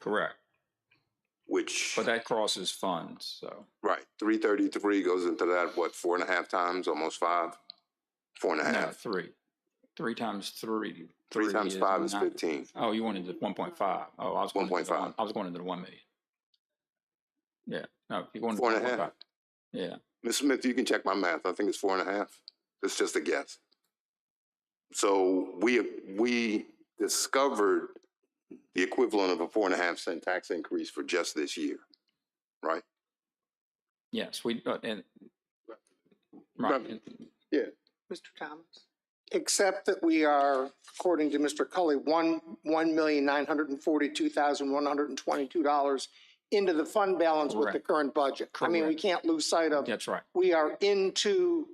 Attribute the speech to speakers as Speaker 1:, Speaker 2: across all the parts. Speaker 1: Correct.
Speaker 2: which
Speaker 1: But that crosses funds, so.
Speaker 2: right three thirty three goes into that what four and a half times, almost five, four and a
Speaker 1: No,
Speaker 2: half.
Speaker 1: three. Three times three.
Speaker 2: Three times five is
Speaker 1: nine-
Speaker 2: fifteen.
Speaker 1: Oh, you wanted the one point five. Oh, I was going into the
Speaker 2: 1.5.
Speaker 1: one, I was going into the one million. Yeah, no, you're going. to
Speaker 2: Four and a
Speaker 1: 1.5.
Speaker 2: half.
Speaker 1: Yeah,
Speaker 2: Ms. Smith, you can check my math. I think it's four and a half. It's just a guess. So we, we discovered the equivalent of a four and a half cent tax increase for just this year.
Speaker 1: yes, we, uh, and.
Speaker 2: Right.
Speaker 1: Right, and-
Speaker 3: Mr. Thomas?
Speaker 4: except that we are, according to Mr. Cully, one, one million nine hundred and forty-two thousand one hundred and twenty-two dollars into the fund balance with the
Speaker 1: Correct.
Speaker 4: current budget. I mean, we
Speaker 1: Correct.
Speaker 4: can't lose sight of,
Speaker 1: that's right,
Speaker 4: we are into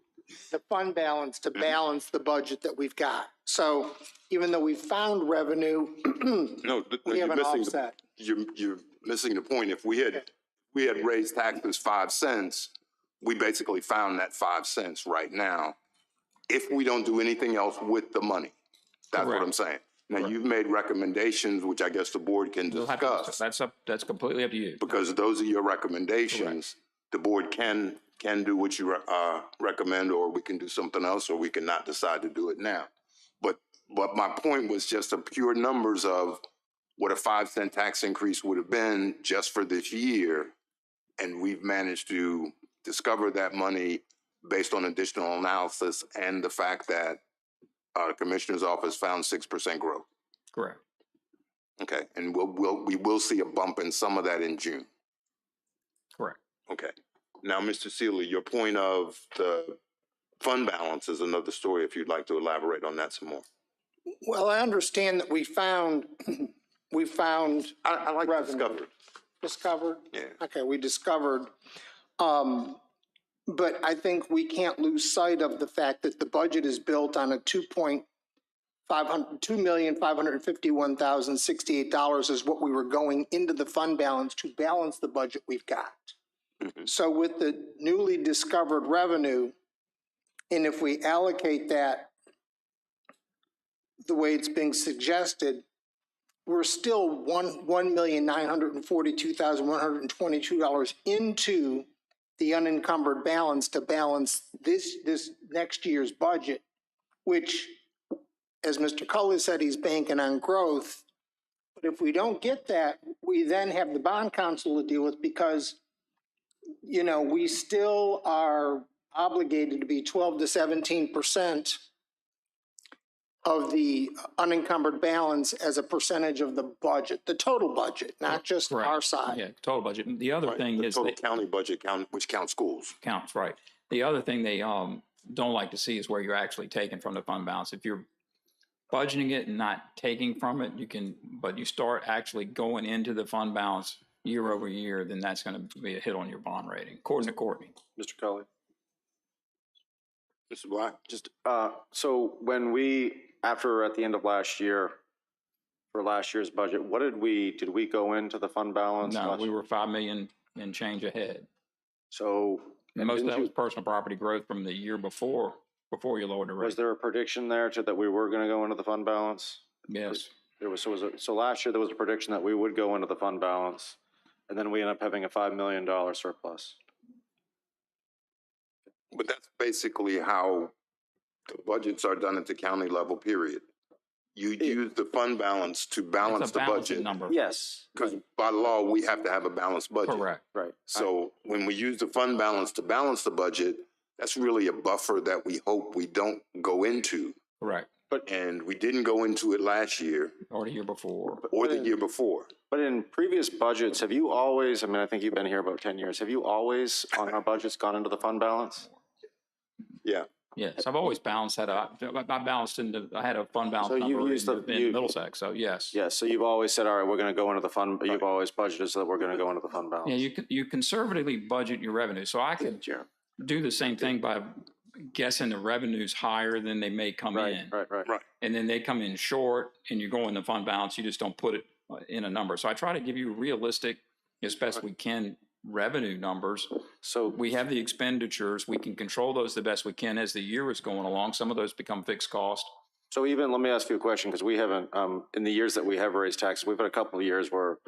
Speaker 4: the fund balance to balance the budget that we've got. So even though we found revenue,
Speaker 2: No, th- no,
Speaker 4: we have
Speaker 2: you're
Speaker 4: an
Speaker 2: missing, the-
Speaker 4: offset.
Speaker 2: you're, you're missing the point. If we had, we had raised taxes five cents, we basically found that five cents right now. If we don't do anything else with the money, that's what I'm
Speaker 1: Correct.
Speaker 2: saying. Now, you've made recommendations, which I guess the board can
Speaker 1: You'll have to-
Speaker 2: discuss.
Speaker 1: that's up, that's completely up to you,
Speaker 2: because those are your recommendations. The board can, can do what you, uh, recommend, or we can do something else, or we can not decide to do it now. But, but my point was just the pure numbers of what a five cent tax increase would have been just for this year. And we've managed to discover that money based on additional analysis and the fact that, uh, Commissioner's Office found six percent growth.
Speaker 1: correct,
Speaker 2: Okay, and we'll, we'll, we will see a bump in some of that in June.
Speaker 1: correct.
Speaker 2: Okay. Now, Mr. Seeley, your point of the fund balance is another story, if you'd like to elaborate on that some more.
Speaker 4: Well, I understand that we found, we found,
Speaker 2: I, I like
Speaker 4: Revenue.
Speaker 2: discovery.
Speaker 4: discovered
Speaker 2: Yeah.
Speaker 4: Okay, we discovered, um, but I think we can't lose sight of the fact that the budget is built on a two point five hundred, two million, five hundred and fifty-one thousand, sixty-eight dollars is what we were going into the fund balance to balance the budget we've got.
Speaker 2: Mhm.
Speaker 4: So with the newly discovered revenue, and if we allocate that the way it's being suggested, we're still one, one million nine hundred and forty-two thousand one hundred and twenty-two dollars into the unencumbered balance to balance this, this next year's budget, which, as Mr. Cully said, he's banking on growth. But if we don't get that, we then have the bond council to deal with because, you know, we still are obligated to be twelve to seventeen percent of the unencumbered balance as a percentage of the budget, the total budget, not just
Speaker 1: Correct.
Speaker 4: our side.
Speaker 1: Yeah, total budget. And The other
Speaker 2: Right,
Speaker 1: thing
Speaker 2: the
Speaker 1: is.
Speaker 2: Total
Speaker 1: that-
Speaker 2: county budget count, which counts schools.
Speaker 1: counts, right. The other thing they um don't like to see is where you're actually taking from the fund balance. If you're budgeting it and not taking from it, you can, but you start actually going into the fund balance year over year, then that's gonna be a hit on your bond rating, according to Courtney.
Speaker 5: Mr. Cully.
Speaker 2: Mr. Black?
Speaker 5: Just, uh, so when we, after at the end of last year, for last year's budget, what did we, did we go into the fund balance?
Speaker 1: No,
Speaker 5: last-
Speaker 1: we were five million and change ahead.
Speaker 5: So
Speaker 1: And most of
Speaker 5: didn't
Speaker 1: that was
Speaker 5: you-
Speaker 1: personal property growth from the year before, before you lowered the
Speaker 5: was
Speaker 1: rate.
Speaker 5: there a prediction there to, that we were gonna go into the fund balance?
Speaker 1: Yes,
Speaker 5: There was, so was, it- so last year there was a prediction that we would go into the fund balance, and then we end up having a five million dollar surplus.
Speaker 2: But that's basically how the budgets are done at the county level, period. You use the fund balance to balance
Speaker 1: it's a
Speaker 2: the
Speaker 1: balancing
Speaker 2: budget.
Speaker 1: number.
Speaker 5: Yes.
Speaker 2: Because by law, we have to have a balanced budget.
Speaker 1: Correct,
Speaker 5: Right.
Speaker 2: So when we use the fund balance to balance the budget, that's really a buffer that we hope we don't go into.
Speaker 1: correct.
Speaker 2: And we didn't go into it last year
Speaker 1: Or the year before.
Speaker 2: or the year before.
Speaker 5: But in previous budgets, have you always, I mean, I think you've been here about ten years, have you always on our budgets gone into the fund balance?
Speaker 1: Yes, I've always balanced that out. I I balanced in the, I had a fund balance
Speaker 5: So you've
Speaker 1: number in
Speaker 5: used
Speaker 1: the-
Speaker 5: the-
Speaker 1: in
Speaker 5: you-
Speaker 1: Middlesex, so yes.
Speaker 5: Yeah, so you've always said, all right, we're gonna go into the fund, you've always budgeted so that we're gonna go into the fund balance.
Speaker 1: Yeah, you, con- you conservatively budget your revenue. So I could
Speaker 5: Sure.
Speaker 1: do the same thing by guessing the revenues higher than they may come
Speaker 5: Right,
Speaker 1: in.
Speaker 5: right, right.
Speaker 1: And then they come in short and you go in the fund balance, you just don't put it uh, in a number. So I try to give you realistic, as best we can, revenue numbers.
Speaker 5: So,
Speaker 1: We have the expenditures, we can control those the best we can as the year is going along. Some of those become fixed cost.
Speaker 5: so even, let me ask you a question, because we haven't, um, in the years that we have raised taxes, we've had a couple of years where